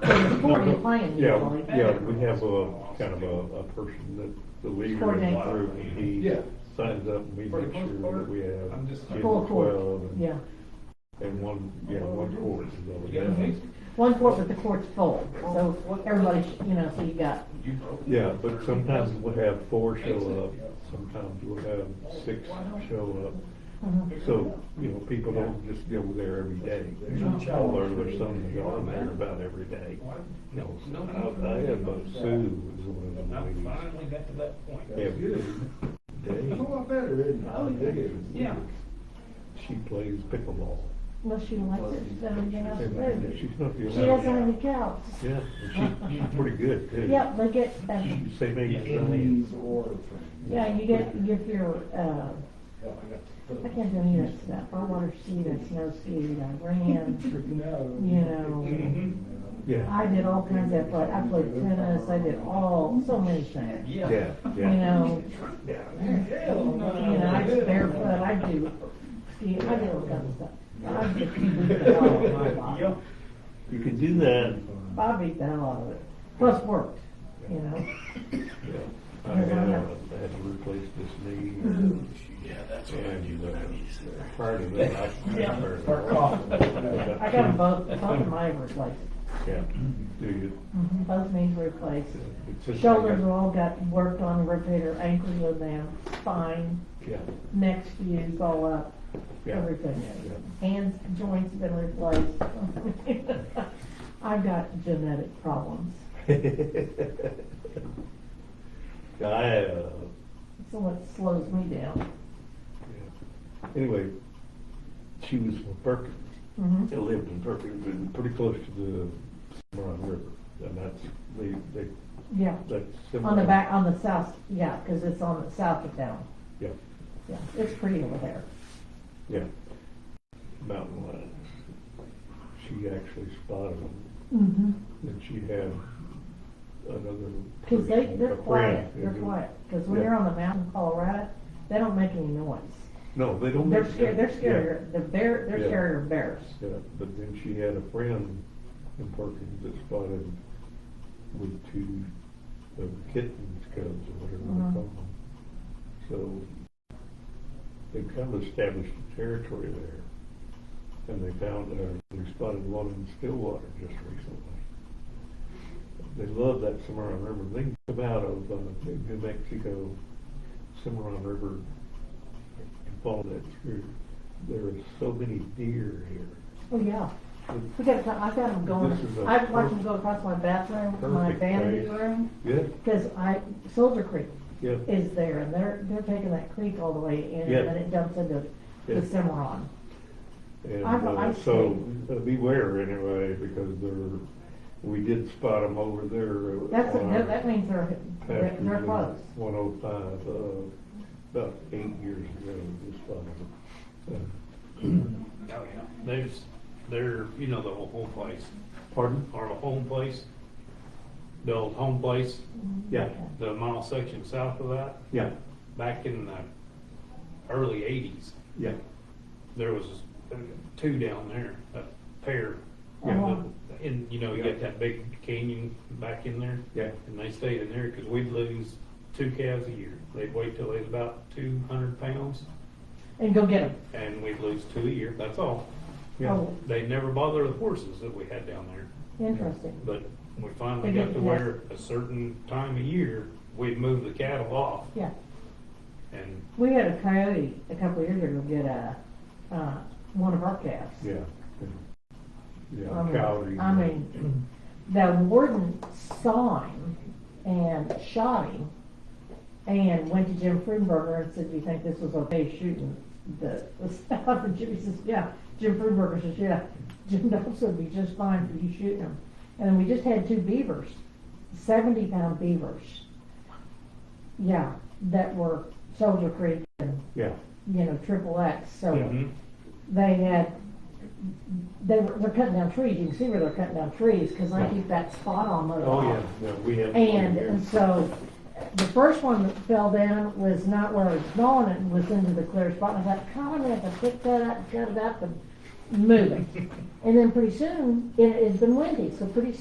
Before you plan, you Yeah, know, like- yeah, we have a, kind of a, a person that the league Coordinate. runs through, and he Yeah. signs up, and we For the make most sure part, that we have. I'm just- 10, Full court, 12, and- yeah. And one, yeah, one court is all we You got a have. mix? One court, but the court's full, so everybody, sh- you know, so you got, You broke it. Yeah, but sometimes we'll have four show up, sometimes we'll have six show up. Mm-hmm. So, you know, people don't just go there every day, although there's some that go there about every day. No, I, I have a Sue is one of I the ladies. finally got to that point. Every It's a day. lot better, isn't it? Oh, yeah. Yeah. She plays pickleball. unless she likes it, so you know, And she She's not the only. doesn't have any couch. Yeah, and she, she's pretty good too. Yep, they get, uh, She's the Same age as I am. Indies or. yeah, you get, you get your, uh, I can't do any of that stuff, I want her to see that snow ski, I ran, No. you know. Yeah, I did all kinds of, like, I played tennis, I did all, so many things, you yeah, yeah. know. Hell, no. You know, I just barefoot, I do, ski, I do all kinds of stuff. I just beat the hell out of my body. Yup. You can do that. I beat the hell out of it. Plus work, you know? Yeah. I had, uh, I had to replace this knee. Yeah, that's what I need. Prior to that, I. Or Yeah. coffee. No. I got them both, both of mine replaced. Yeah, do you? Mhm, Both knees replaced. it's just- Shoulders are all got worked on, repaired, ankles are down, spine, Yeah, neck fuse all up, yeah. everything. Yeah. Hands, joints been replaced. I've got genetic problems. Yeah, I, uh, So what slows me down. yeah. anyway, she was from Perkins. Mhm. I lived in Perkins, and pretty close to the Cimarron River, and that's, they, they, Yeah. that's. On the Cimarron. back, on the south, yeah, because it's on the south of town. Yeah, Yeah, it's pretty over there. yeah. Mountain lions. She actually spotted them, Mm-hmm. and she had another. Because they, person, they're a quiet, friend, they're and it- quiet. Because when Mm-hmm. Yeah. they're on the mountain in Colorado, they don't make any noise. No, they don't. They're make scared, they're sense. Yeah. scarier, the bear, they're Yeah. scarier of bears. Yeah, but then she had a friend in Perkins that spotted with two of the kittens, cubs, or whatever they Mhm. call them. So they kind of established a territory there. And they found, uh, we spotted one in Stillwater just recently. They love that Cimarron River. They can come out of, uh, New Mexico, Cimarron River and follow that through. There are so many deer here. Oh, yeah. We got, I got them This is a going, I watch them perfect- go across my bathroom, my perfect vanity place. room. Yeah, Because I, Soldier Creek yeah, is there and they're, they're taking that creek all the way in Yeah. and then it dumps into Yeah. the Cimarron. and I've- uh, I've so uh, beware anyway, because there, we did spot them over there. uh, That's, on that- our that means they're, they're pasture they're close. One oh five, uh, about eight years ago, we just spotted them. Oh, yeah. There's, they're, you know, the old home place, Uh, Pardon? or the home place, the old home place, Yeah, the mile section south of that, yeah, back in the early eighties, yeah, there was two down there, a pair. Yeah. And, you know, you got that big canyon back in there. Yeah. And they stayed in there, cause we'd lose two calves a year. They'd wait till they was about two hundred pounds, And go get them. and we'd lose two a year, that's all. yeah. Oh, They never bother the horses that we had down there. interesting. But we finally They got get- to yeah. where a certain time of year, we'd move the cattle off Yeah. and, We had a coyote a couple of years ago get a, uh, one of our calves. Yeah. I Yeah, mean- Cowdery. I mean, the warden saw him and shot him and went to Jim Friedenberger and said, do you think this was okay shooting the, the stuff? And Jimmy says, yeah. Jim Friedenberger says, yeah. Jim Dobbs would be just fine for you shooting him. And then we just had two beavers, seventy pound beavers. Yeah, that were Soldier Creek and, Yeah, you know, triple X, so Mm-hmm. Mhm. they had, they were, they're cutting down trees, you can see where they're cutting down trees, cause I keep that spot on those. oh, yeah, yeah, we have. And, and so, the first one that fell down was not where I was going, it was into the clear spot, and I thought, God, I'm gonna have to pick that up, cut it up and move it. And then pretty soon, it, it's been windy, so pretty